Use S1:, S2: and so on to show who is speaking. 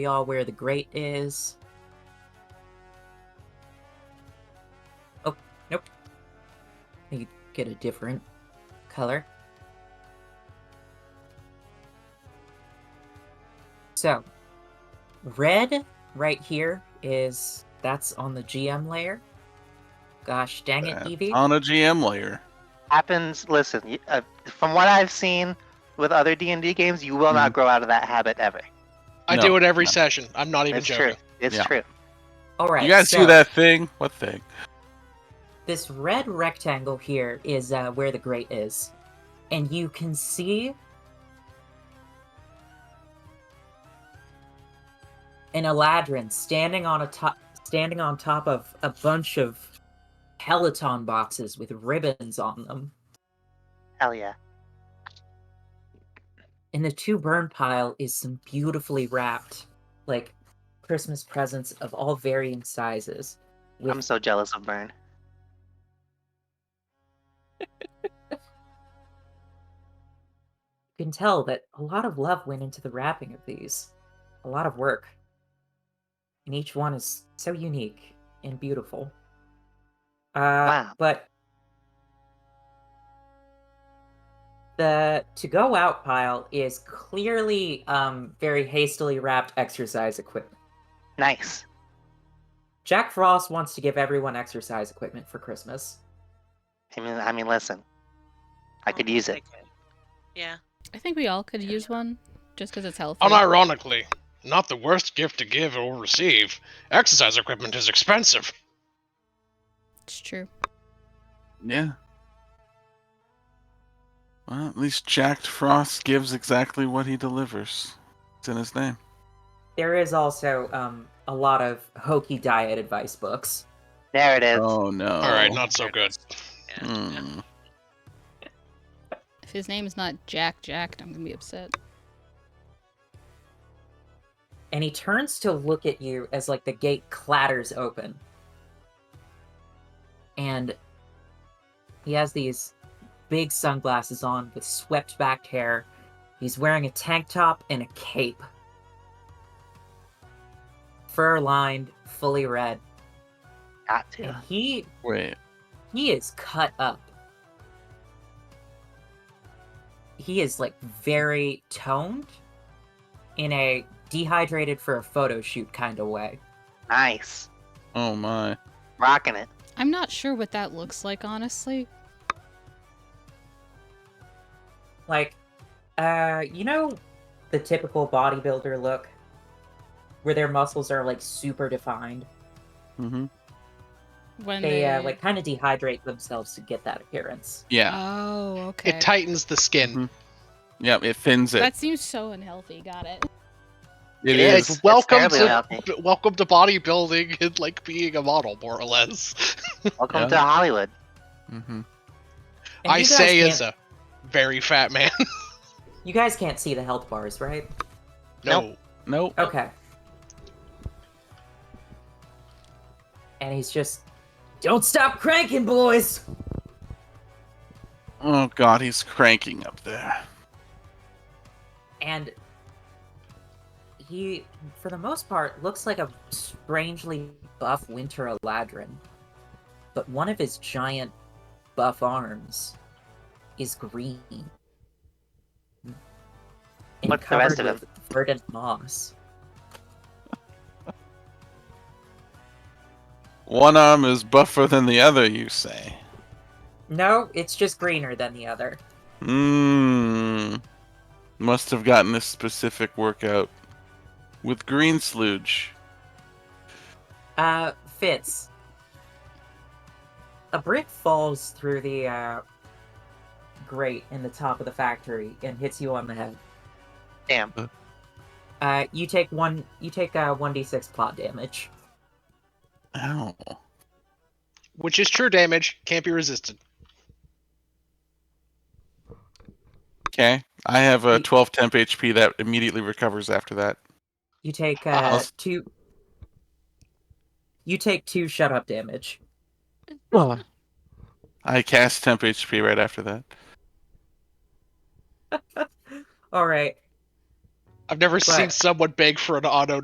S1: we all where the grate is. Oh, nope. You get a different color. So, red right here is that's on the GM layer. Gosh dang it,
S2: That's
S1: Evie.
S2: on a GM layer.
S3: happens listen y- uh, from what i've seen with other d&d games you will
S2: Mhm.
S3: not grow out of that habit ever
S4: I
S2: No,
S4: do it every
S2: no.
S4: session. I'm not even
S3: it's true
S4: joking.
S3: it's
S2: Yeah.
S3: true
S1: All right.
S2: you guys
S1: so-
S2: see that thing? What thing?
S1: this red rectangle here is uh, where the grate is and you can see an eladrin standing on a top standing on top of a bunch of peloton boxes with ribbons on them
S3: hell yeah
S1: in the two burn pile is some beautifully wrapped like christmas presents of all varying sizes with
S3: i'm so jealous of burn
S1: You can tell that a lot of love went into the wrapping of these, a lot of work. And each one is so unique and beautiful. Uh,
S3: Wow.
S1: But the to go out pile is clearly um, very hastily wrapped exercise equipment.
S3: nice
S1: Jack Frost wants to give everyone exercise equipment for Christmas.
S3: i mean i mean listen i could use it
S5: Oh, Yeah.
S6: I think we all could use one, just because it's healthy.
S4: Unironically, not the worst gift to give or receive. Exercise equipment is expensive.
S6: It's true.
S2: Yeah. Well, at least Jack Frost gives exactly what he delivers. It's in his name.
S1: There is also um, a lot of hokey diet advice books.
S3: there it is
S2: Oh no!
S4: All right, not so good.
S5: Yeah.
S2: Hmm.
S6: If his name's not Jack Jacked, I'm gonna be upset.
S1: and he turns to look at you as like the gate clatters open and he has these big sunglasses on with swept back hair he's wearing a tank top and a cape fur lined fully red
S3: got
S1: and
S3: to
S1: he
S2: Wait.
S1: he is cut up. He is like very toned in a dehydrated for a photo shoot kind of way.
S3: nice
S2: Oh my.
S3: rocking it
S6: I'm not sure what that looks like, honestly.
S1: Like, uh, you know, the typical bodybuilder look where their muscles are like super defined.
S2: hmm
S6: When
S1: They uh, like kind of dehydrate themselves to get that appearance.
S2: Yeah.
S6: Oh, okay.
S4: It tightens the skin.
S2: Mhm. Yep. It thins it.
S6: that seems so unhealthy. Got it.
S2: it
S4: Yeah,
S2: is.
S4: it's welcome
S3: terribly
S4: to
S3: unhealthy.
S4: b- welcome to bodybuilding and like being a model, more or less.
S3: welcome
S2: Yeah.
S3: to hollywood
S2: hmm
S1: And
S4: I
S1: you guys
S4: say
S1: can't-
S4: as a very fat man.
S1: you guys can't see the health bars, right?
S4: no,
S2: Nope.
S1: Okay. And he's just, don't stop cranking, boys.
S2: Oh god, he's cranking up there.
S1: And he, for the most part, looks like a strangely buff winter eladrin. But one of his giant buff arms is green. and
S3: What's the rest
S1: covered
S3: of
S1: with Verdant moss.
S2: One arm is buffer than the other, you say?
S1: No, it's just greener than the other.
S2: Mmm. Must have gotten this specific workout with green sludge.
S1: Uh, Fitz. A brick falls through the uh, grate in the top of the factory and hits you on the head.
S3: Damn.
S1: Uh, you take one. You take uh one d six plot damage.
S2: Ow.
S4: which is true damage, can't be resisted.
S2: Okay. I have a
S1: Ye-
S2: 12 temp HP that immediately recovers after that.
S1: You take
S2: I'll
S1: uh
S2: s-
S1: two. You take two shut up damage.
S2: I cast temp HP right after that.
S1: All right.
S4: I've never seen
S1: But-
S4: someone beg for an auto